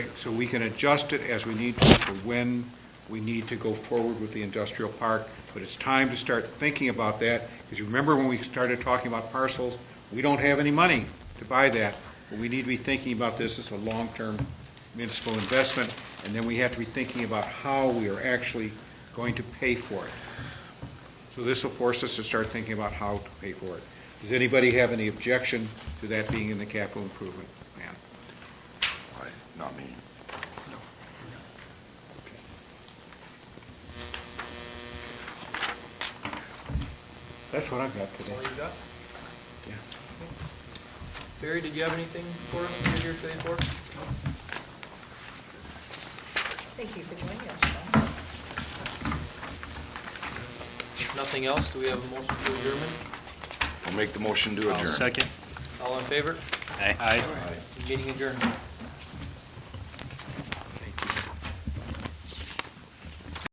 So we can adjust it as we need to, to when we need to go forward with the industrial park, but it's time to start thinking about that, because you remember when we started talking about parcels, we don't have any money to buy that, but we need to be thinking about this as a long-term municipal investment, and then we have to be thinking about how we are actually going to pay for it. So this will force us to start thinking about how to pay for it. Does anybody have any objection to that being in the capital improvement plan? Why, Not me. That's what I've got today. All you got? Yeah. Barry, did you have anything for us that you're here today for? Thank you for joining us. Nothing else? Do we have a motion to adjourn? I'll make the motion to adjourn. Second. All in favor? Aye. Meeting adjourned.